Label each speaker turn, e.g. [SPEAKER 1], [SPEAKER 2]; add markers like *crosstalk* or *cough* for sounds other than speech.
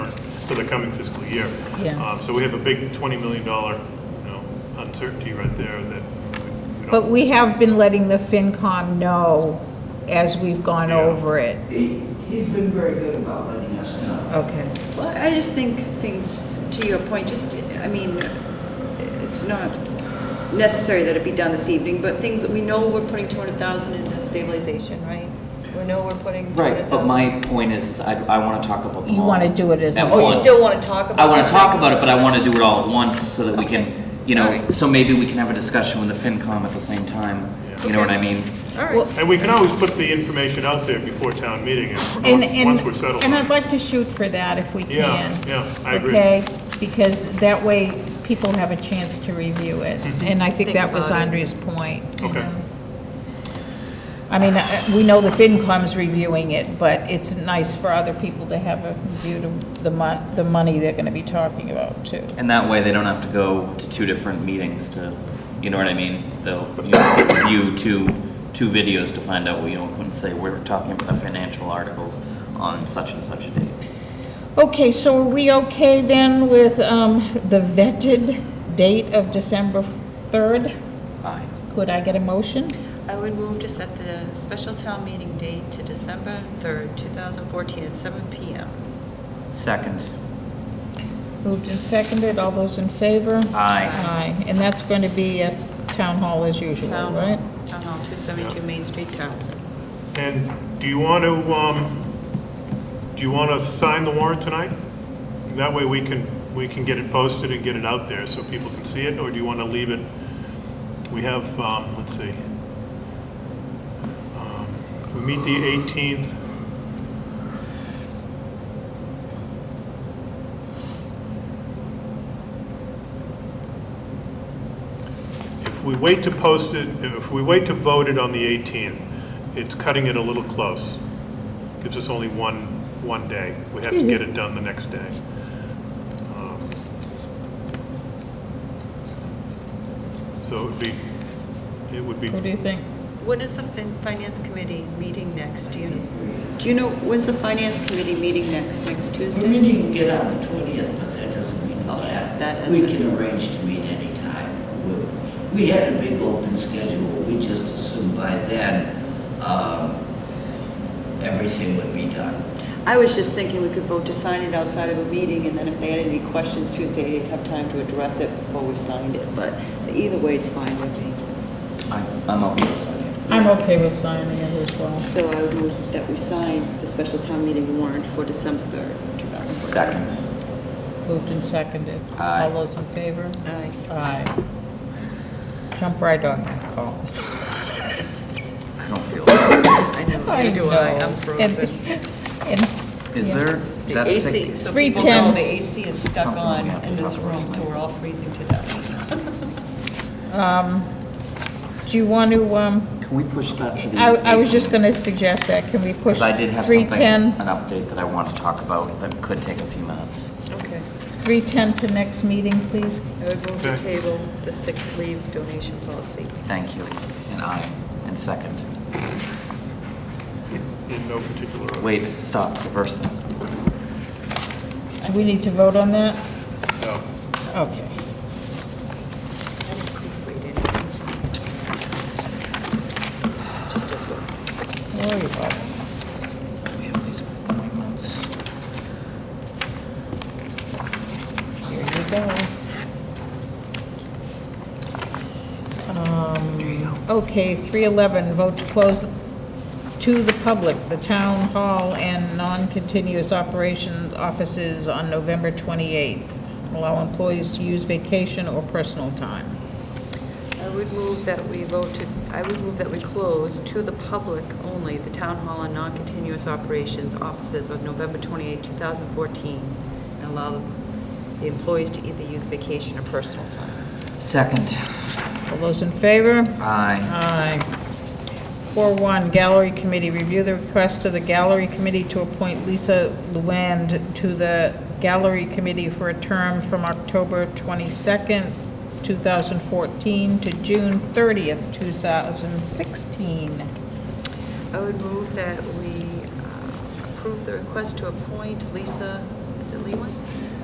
[SPEAKER 1] for the coming fiscal year.
[SPEAKER 2] Yeah.
[SPEAKER 1] Um, So we have a big $20 million, you know, uncertainty right there that we- we
[SPEAKER 2] But
[SPEAKER 1] don't,
[SPEAKER 2] we have been letting the FinCom know as we've gone
[SPEAKER 1] Yeah.
[SPEAKER 2] over it.
[SPEAKER 3] He, he's been very good about letting us know.
[SPEAKER 2] Okay.
[SPEAKER 4] Well, I just think things, to your point, just, I mean, it's not necessary that it be done this evening, but things, that we know we're putting 200,000 into stabilization, right? We know we're putting 200,000.
[SPEAKER 5] Right, but my point is, is I, I want to talk about them
[SPEAKER 2] You
[SPEAKER 5] all
[SPEAKER 2] wanna do it as
[SPEAKER 5] at
[SPEAKER 2] a
[SPEAKER 4] Oh, you
[SPEAKER 5] once.
[SPEAKER 4] still want to talk about
[SPEAKER 5] I want to
[SPEAKER 4] these
[SPEAKER 5] talk
[SPEAKER 4] things?
[SPEAKER 5] about it, but I want to do it all at once so that we
[SPEAKER 4] Okay.
[SPEAKER 5] can, you know,
[SPEAKER 4] Alright.
[SPEAKER 5] so maybe we can have a discussion with the FinCom at the same time.
[SPEAKER 1] Yeah.
[SPEAKER 5] You know what
[SPEAKER 4] Okay.
[SPEAKER 5] I mean?
[SPEAKER 4] All right.
[SPEAKER 2] Well,
[SPEAKER 1] and we can always put the information out there before town meeting, and
[SPEAKER 2] And,
[SPEAKER 1] once- once we're
[SPEAKER 2] and,
[SPEAKER 1] settled.
[SPEAKER 2] and
[SPEAKER 1] on
[SPEAKER 2] I'd
[SPEAKER 1] it.
[SPEAKER 2] like to shoot for that if we
[SPEAKER 1] Yeah,
[SPEAKER 2] can.
[SPEAKER 1] yeah, I agree.
[SPEAKER 2] Okay, because that way people have a chance to review it. And I think
[SPEAKER 4] Think
[SPEAKER 2] that was
[SPEAKER 4] about it.
[SPEAKER 2] Andrea's point. you
[SPEAKER 1] Mm-hmm. Okay.
[SPEAKER 2] know. I mean, uh, we know the FinCom's reviewing it, but it's nice for other people to have a view to the mon, the money they're gonna be talking about too.
[SPEAKER 5] And that way, they don't have to go to two different meetings to, you know what I mean? They'll, you know, view two, two videos to find out, you know, couldn't say, we're talking about the financial articles on such and such a date.
[SPEAKER 2] Okay, so are we okay then with, um, the vetted date of December third?
[SPEAKER 5] Aye.
[SPEAKER 2] Could I get a motion?
[SPEAKER 4] I would move to set the special town meeting date to December 3rd, 2014 at 7 PM.
[SPEAKER 5] Second.
[SPEAKER 2] Moved and seconded, all those in favor?
[SPEAKER 5] Aye.
[SPEAKER 2] Aye, and that's going to be at Town Hall as usual,
[SPEAKER 4] Town
[SPEAKER 2] right?
[SPEAKER 4] Town Hall, 272 Main Street, Townsend.
[SPEAKER 1] And do you want to, um, do you want to sign the warrant tonight? That way we can, we can get it posted and get it out there so people can see it, or do you want to leave it? We have, um, let's see. Um, We meet the 18th. If we wait to post it, if we wait to vote it on the 18th, it's cutting it a little close. Gives us only one, one day. We have to get it done the next day. Um, So it would be, it would be,
[SPEAKER 2] What do you think?
[SPEAKER 4] When is the fin- Finance Committee meeting next? Do you, do you know, when's the Finance Committee meeting next? Next
[SPEAKER 3] The
[SPEAKER 4] Tuesday?
[SPEAKER 3] meeting can get on the twentieth, but that doesn't mean
[SPEAKER 4] Oh, yes, that
[SPEAKER 3] that.
[SPEAKER 4] is
[SPEAKER 3] We
[SPEAKER 4] the-
[SPEAKER 3] can arrange to meet anytime. We- We had a big open schedule, we just assumed by then, um, everything would be done.
[SPEAKER 4] I was just thinking we could vote to sign it outside of a meeting, and then if they had any questions Tuesday, they'd have time to address it before we signed it, but either way is fine with me.
[SPEAKER 5] I, I'm okay with signing.
[SPEAKER 2] I'm okay with signing it as well.
[SPEAKER 4] So I would move that we sign the special town meeting warrant for December 3rd, 2014.
[SPEAKER 5] Second.
[SPEAKER 2] Moved and seconded.
[SPEAKER 5] Aye.
[SPEAKER 2] All those in favor?
[SPEAKER 4] Aye.
[SPEAKER 2] Aye. Jump right on that call.
[SPEAKER 5] I don't feel.
[SPEAKER 4] I know, neither do I, I'm frozen.
[SPEAKER 2] *laughs*
[SPEAKER 5] Is there,
[SPEAKER 4] The
[SPEAKER 5] that's sick.
[SPEAKER 4] AC, so
[SPEAKER 2] Three
[SPEAKER 4] people know
[SPEAKER 2] temps.
[SPEAKER 4] the AC is stuck
[SPEAKER 5] Something we
[SPEAKER 4] on
[SPEAKER 5] have to
[SPEAKER 4] in this
[SPEAKER 5] talk about
[SPEAKER 4] room, so
[SPEAKER 5] tonight.
[SPEAKER 4] we're all freezing to death.
[SPEAKER 2] Um, Do you want to, um,
[SPEAKER 5] Can we push that to the?
[SPEAKER 2] I, I was just
[SPEAKER 5] 18th?
[SPEAKER 2] going to suggest that, can we push
[SPEAKER 5] Because I did have something, an
[SPEAKER 2] 310,
[SPEAKER 5] update that I want to talk about that could take a few minutes.
[SPEAKER 4] *laughs* Okay.
[SPEAKER 2] 310 to next meeting, please?
[SPEAKER 4] I would move to
[SPEAKER 1] Okay.
[SPEAKER 4] table the sick leave donation policy.
[SPEAKER 5] Thank you, and I, and second.
[SPEAKER 1] in no particular order.
[SPEAKER 5] Wait, stop, reverse that.
[SPEAKER 2] Do we need to vote on that?
[SPEAKER 1] No.
[SPEAKER 2] Okay.
[SPEAKER 4] I didn't proofread anything. Just as well.
[SPEAKER 2] Where are you, Bob?
[SPEAKER 5] We have these appointments.
[SPEAKER 2] Here you go. Um, Okay, 311, vote to close to the public the town hall and non-continuous operations offices on November 28th. Allow employees to use vacation or personal time.
[SPEAKER 4] I would move that we vote to, I would move that we close to the public only the town hall and non-continuous operations offices on November 28, 2014, and allow the employees to either use vacation or personal time.
[SPEAKER 5] Second,
[SPEAKER 2] All those in favor?
[SPEAKER 5] aye.
[SPEAKER 2] Aye. 4-1, Gallery Committee, review the request of the Gallery Committee to appoint Lisa Luand to the Gallery Committee for a term from October 22nd, 2014 to June 30th, 2016.
[SPEAKER 4] I would move that we uh, approve the request to appoint Lisa, is it Lewin?